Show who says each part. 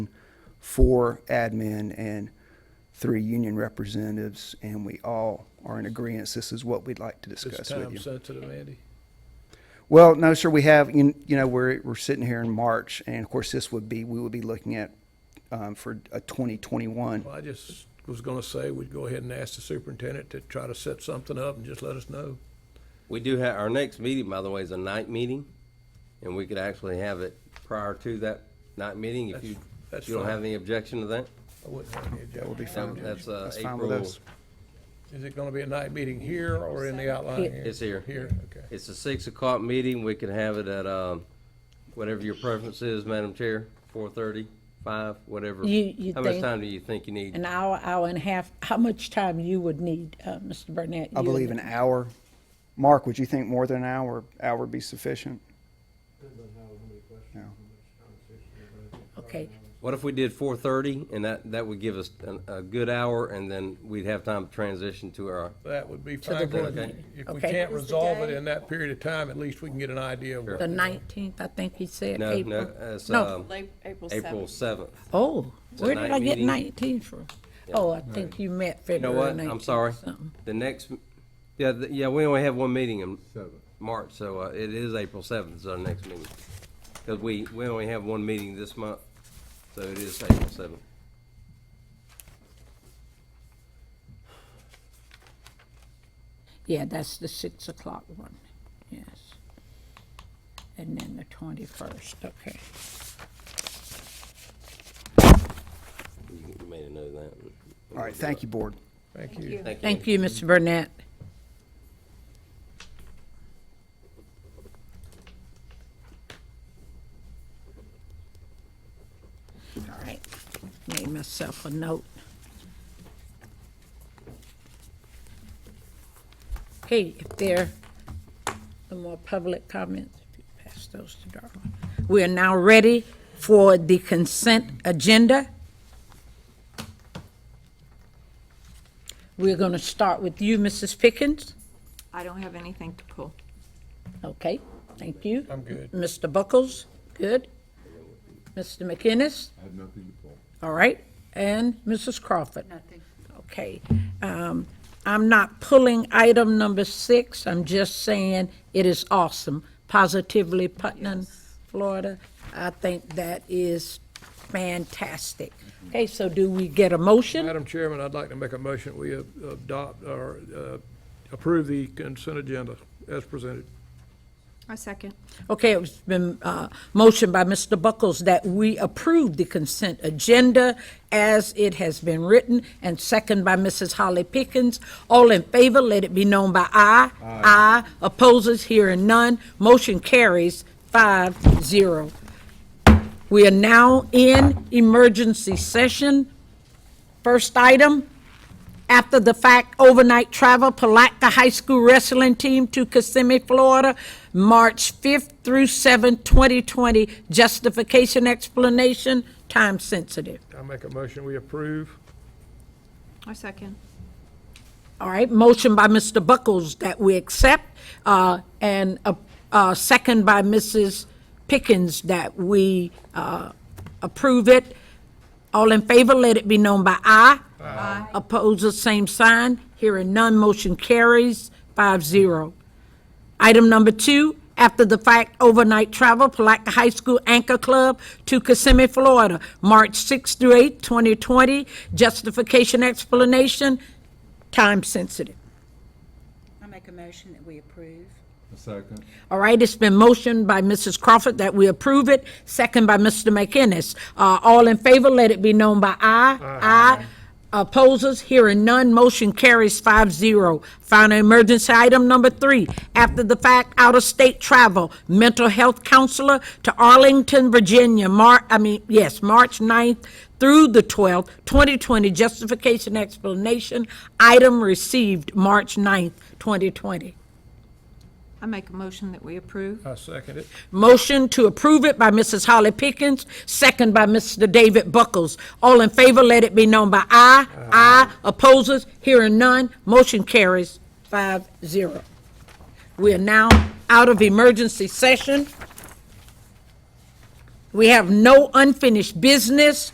Speaker 1: four admin and three union representatives, and we all are in agreement. This is what we'd like to
Speaker 2: It's
Speaker 1: discuss with
Speaker 2: time
Speaker 1: you.
Speaker 2: sensitive, Andy.
Speaker 1: Well, no, sir, we have, you you know, we're, we're sitting here in March, and of course, this would be, we would be looking at um, for a 2021.
Speaker 2: Well, I just was gonna say, we'd go ahead and ask the superintendent to try to set something up and just let us know.
Speaker 3: We do have, our next meeting, by the way, is a night meeting, and we could actually have it prior to that night meeting, if you,
Speaker 2: That's- that's
Speaker 3: if you don't
Speaker 2: fine.
Speaker 3: have any objection to that.
Speaker 2: I wouldn't have any
Speaker 1: That would be
Speaker 2: objection.
Speaker 1: fine.
Speaker 3: That- that's, uh,
Speaker 1: That's fine with
Speaker 3: April-
Speaker 1: us.
Speaker 2: Is it gonna be a night meeting here or in the outlying area?
Speaker 3: It's here.
Speaker 2: Here, okay.
Speaker 3: It's a six o'clock meeting, we could have it at, um, whatever your preference is, Madam Chair, four thirty, five, whatever.
Speaker 4: You- you
Speaker 3: How much
Speaker 4: think-
Speaker 3: time do you think you need?
Speaker 4: An hour, hour and a half, how much time you would need, uh, Mr. Burnett?
Speaker 1: I
Speaker 4: you
Speaker 1: believe
Speaker 4: and-
Speaker 1: an hour. Mark, would you think more than an hour, hour would be sufficient? No.
Speaker 4: Okay,
Speaker 3: What if we did four thirty, and that, that would give us an- a good hour, and then we'd have time to transition to our,
Speaker 2: That would be
Speaker 4: the
Speaker 2: fine, because
Speaker 4: board meeting.
Speaker 2: if we
Speaker 4: Okay.
Speaker 2: can't
Speaker 4: What
Speaker 5: was the
Speaker 2: resolve it
Speaker 5: day?
Speaker 2: in that period of time, at least we can get an idea of
Speaker 4: the
Speaker 2: what.
Speaker 4: nineteenth, I think he said,
Speaker 3: no,
Speaker 4: April.
Speaker 3: no, it's,
Speaker 4: No.
Speaker 3: um,
Speaker 5: Late April
Speaker 3: April
Speaker 5: 7th.
Speaker 3: seventh.
Speaker 4: Oh,
Speaker 3: It's a
Speaker 4: where did
Speaker 3: night
Speaker 4: I get
Speaker 3: meeting.
Speaker 4: nineteen from? Oh, I think you met
Speaker 3: You know
Speaker 4: February
Speaker 3: what?
Speaker 4: nineteenth.
Speaker 3: I'm sorry. The next, yeah, the- yeah, we only have one meeting in March, so uh, it is April seventh is our next meeting. Because we, we only have one meeting this month, so it is April seventh.
Speaker 4: Yeah, that's the six o'clock one, yes. And then the twenty-first, okay.
Speaker 3: You you may know that.
Speaker 1: All right, thank you, board.
Speaker 2: Thank you.
Speaker 3: Thank you.
Speaker 4: Thank you, Mr. Burnett. All right, made myself a note. Okay, if there are more public comments, if you pass those to Darla. We are now ready for the consent agenda. We're going to start with you, Mrs. Pickens.
Speaker 5: I don't have anything to pull.
Speaker 4: Okay, thank you.
Speaker 2: I'm good.
Speaker 4: Mr. Buckles, good. Mr. McInnes? I have nothing to pull. All right, and Mrs. Crawford? Nothing. Okay. um, I'm not pulling item number six, I'm just saying it is awesome. Positively Putnam, Florida. I think that is fantastic. Okay, so do we get a motion?
Speaker 2: Madam Chairman, I'd like to make a motion, we a- adopt or uh, approve the consent agenda as presented.
Speaker 5: I second.
Speaker 4: Okay, it's been uh, motioned by Mr. Buckles that we approve the consent agenda as it has been written, and second by Mrs. Holly Pickens. All in favor, let it be known by aye. Aye. Opposes, hearing none. Motion carries five zero. We are now in emergency session. First item, after-the-fact overnight travel, Palatka High School Wrestling Team to Kissimmee, Florida, March 5th through 7th, 2020. Justification, explanation, time sensitive.
Speaker 2: I make a motion, we approve.
Speaker 5: I second.
Speaker 4: All right, motion by Mr. Buckles that we accept, uh, and a a second by Mrs. Pickens that we uh, approve it. All in favor, let it be known by aye. Aye. Opposed, the same sign. Hearing none, motion carries five zero. Item number two, after the fact overnight travel, Palatka High School Anchor Club to Kissimmee, Florida, March 6th through 8th, 2020. Justification, explanation, time sensitive.
Speaker 6: I make a motion that we approve.
Speaker 7: A second.
Speaker 4: All right, it's been motioned by Mrs. Crawford that we approve it, second by Mr. McInnes. Uh, All in favor, let it be known by aye. Aye. Opposers, hearing none, motion carries five zero. Final emergency item number three, after the fact, out-of-state travel, mental health counselor to Arlington, Virginia, Mar, I mean, yes, March 9th through the 12th, 2020, justification explanation, item received, March 9th, 2020.
Speaker 5: I make a motion that we approve.
Speaker 2: I second it.
Speaker 4: Motion to approve it by Mrs. Holly Pickens, second by Mr. David Buckles. All in favor, let it be known by aye. Aye. Opposers, hearing none, motion carries five zero. We are now out of emergency session. We have no unfinished business.